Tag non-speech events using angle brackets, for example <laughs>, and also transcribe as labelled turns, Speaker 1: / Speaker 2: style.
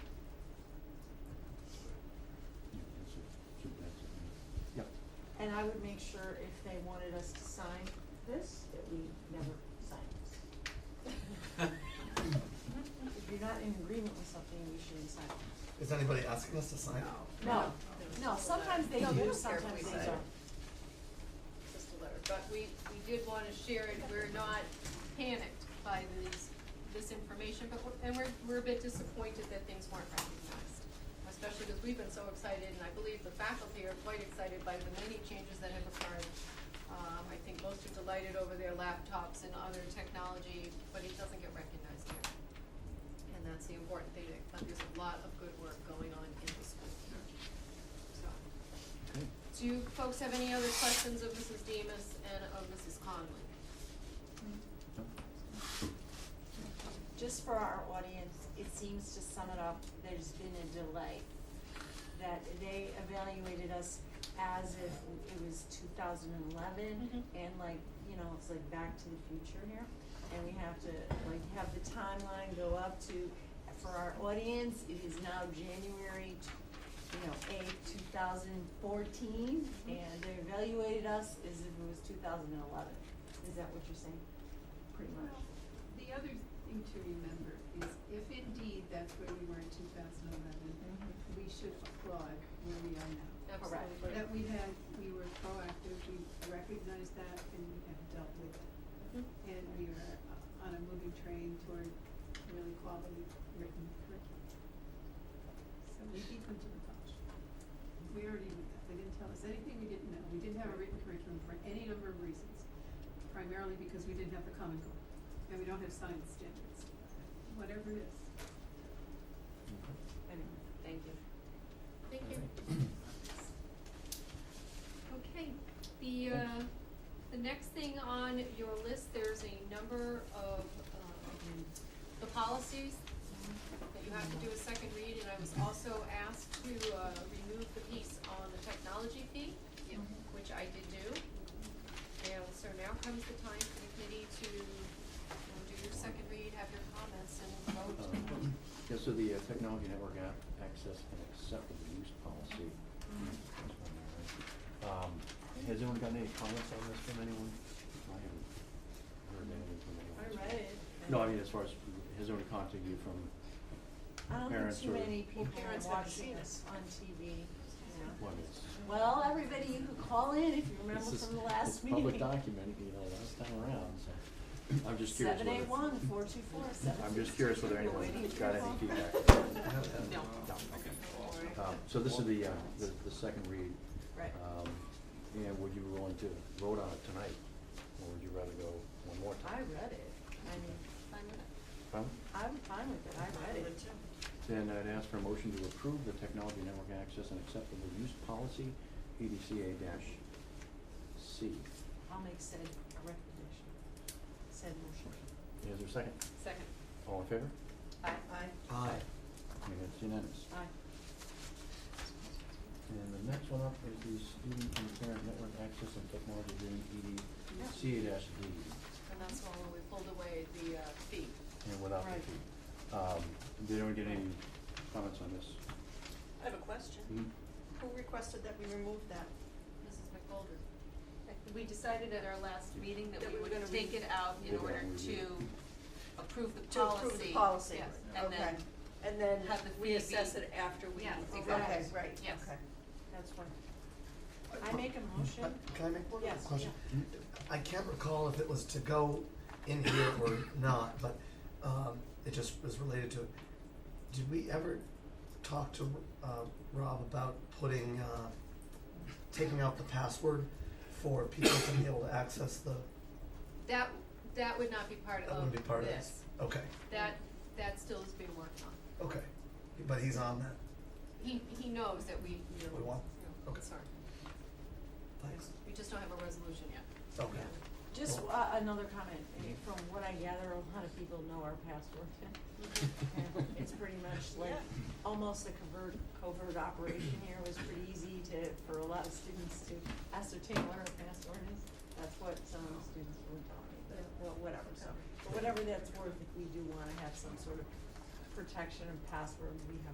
Speaker 1: I would make sure if they wanted us to sign this, that we never sign this. If you're not in agreement with something, you shouldn't sign it.
Speaker 2: <laughs> Is anybody asking us to sign? it?
Speaker 1: No, no, sometimes they
Speaker 3: No, they
Speaker 1: do,
Speaker 3: don't care if
Speaker 1: sometimes
Speaker 3: we
Speaker 1: they
Speaker 3: sign it.
Speaker 1: don't.
Speaker 3: just a letter, but we, we did wanna share it, we're not panicked by these, this information, but we're, and we're, we're a bit disappointed that things weren't recognized. Especially because we've been so excited, and I believe the faculty are quite excited by the many changes that have occurred. Um, I think most are delighted over their laptops and other technology, but it doesn't get recognized here. And that's the important thing, that there's a lot of good work going on in the school. So, do you folks have any other questions of Mrs. Demus and of Mrs. Conley?
Speaker 1: Just for our audience, it seems to sum it up, there's been a delay. That they evaluated us as if it was two thousand and eleven,
Speaker 3: Mhm.
Speaker 1: and like, you know, it's like back to the future here. And we have to, like, have the timeline go up to, for our audience, it is now January, t- you know, eighth, two thousand fourteen,
Speaker 3: Mhm.
Speaker 1: and they evaluated us as if it was two thousand and eleven. Is that what you're saying? Pretty much.
Speaker 4: The other thing to remember is if indeed that's where we were in two thousand eleven,
Speaker 1: Mhm.
Speaker 4: we should applaud where we are now.
Speaker 1: Oh,
Speaker 3: Absolutely.
Speaker 4: That we had, we were proactive, we recognized that and we have dealt with it.
Speaker 3: Mhm.
Speaker 4: And we are uh, on a moving train toward really quality written curriculum. So we beat them to the punch. We already knew that, they didn't tell us anything we didn't know, we didn't have a written curriculum for any number of reasons. Primarily because we didn't have the common goal, and we don't have science standards, whatever it is.
Speaker 1: Anyway, thank you.
Speaker 3: Thank you. Okay, the, uh, the next thing on your list, there's a number of, um, the policies that you have to do a second read, and I was also asked to, uh, remove the piece on the technology fee, which I did do. And so now comes the time for the committee to, um, do your second read, have your comments, and vote.
Speaker 5: Um, Yeah, so the uh, Technology Network App Access and Acceptable Use Policy. Um, Has anyone gotten any comments on this from anyone? I haven't heard anything from anyone. so-
Speaker 1: I read it.
Speaker 5: No, I mean, as far as, has anyone contacted you from,
Speaker 1: I don't think
Speaker 5: parents
Speaker 1: too
Speaker 5: or-
Speaker 1: many people
Speaker 6: parents
Speaker 1: are
Speaker 6: haven't
Speaker 1: watching
Speaker 6: seen
Speaker 1: us on TV, you know.
Speaker 5: what is?
Speaker 1: Well, everybody, you could call in if you remember
Speaker 5: This is-
Speaker 1: from the last
Speaker 5: it's
Speaker 1: meeting.
Speaker 5: Public document, you know, last time around, so I'm just curious
Speaker 1: Seven
Speaker 5: whether.
Speaker 1: eight one four two four seven.
Speaker 5: I'm just curious whether anyone got any feedback.
Speaker 2: No.
Speaker 5: Um, So this is the, uh, the, the second read.
Speaker 1: Right.
Speaker 5: Um, and would you be willing to vote on it tonight, or would you rather go one more
Speaker 1: <laughs> I
Speaker 5: time?
Speaker 1: read it. I mean,
Speaker 3: Fine with it?
Speaker 5: Huh?
Speaker 1: I'm fine with it. I read it.
Speaker 5: Then I'd ask for a motion to approve the Technology Network Access and Acceptable Use Policy, EDCA C.
Speaker 1: I'll make said a recommendation. Said motion.
Speaker 5: Is there a second?
Speaker 3: Second.
Speaker 5: All in favor?
Speaker 1: Aye.
Speaker 2: Aye.
Speaker 5: I mean, it's unanimous.
Speaker 1: Aye.
Speaker 5: And the next one up is the Student and Parent Network Access and Technology Agreement, EDCA D,
Speaker 3: And that's one where we pulled away the uh, fee.
Speaker 5: and without the
Speaker 1: Right.
Speaker 5: fee. Um, did anyone get any comments on this?
Speaker 6: I have a question.
Speaker 5: Hmm?
Speaker 6: Who requested that we remove that?
Speaker 3: Mrs. McGolder. We decided at our last meeting that
Speaker 6: That
Speaker 3: we
Speaker 6: we were
Speaker 3: would
Speaker 6: gonna
Speaker 3: take
Speaker 6: read-
Speaker 3: it out in
Speaker 5: Yeah,
Speaker 3: order
Speaker 5: we-
Speaker 3: to approve the policy.
Speaker 6: To approve the policy?
Speaker 3: Yes, and
Speaker 6: Okay.
Speaker 3: then,
Speaker 6: And then
Speaker 3: have the
Speaker 6: we
Speaker 3: fee
Speaker 6: assess
Speaker 3: be-
Speaker 6: it after we.
Speaker 3: Yeah,
Speaker 6: okay,
Speaker 3: exactly.
Speaker 6: Right,
Speaker 3: Yes.
Speaker 6: okay.
Speaker 1: That's one. I make a
Speaker 2: Uh,
Speaker 1: motion.
Speaker 2: Can I make one
Speaker 1: Yes,
Speaker 2: question? I can't recall if it was to go in here or not, but, um, it just was related to it. Did we ever talk to, uh, Rob about putting, uh, taking out the password for people to be able to access the,
Speaker 3: that, that would not be part of this.
Speaker 2: that wouldn't be part of this? Okay,
Speaker 3: That, that still is being worked on.
Speaker 2: okay, but he's on that,
Speaker 3: He, he knows that we, you know,
Speaker 2: We want-
Speaker 3: you know,
Speaker 2: okay.
Speaker 3: sorry,
Speaker 2: thanks,
Speaker 3: we just don't have a resolution yet.
Speaker 2: okay.
Speaker 1: Just uh, another comment, eh, from what I gather, a lot of people know our password. <laughs>
Speaker 3: <laughs>
Speaker 1: And It's pretty much like,
Speaker 6: Yeah.
Speaker 1: almost a covert, covert operation here, it was pretty easy to, for a lot of students to ascertain what our password is. That's what some of the students were telling me, but, well, whatever, so, for whatever that's worth, if we do wanna have some sort of protection and password, we have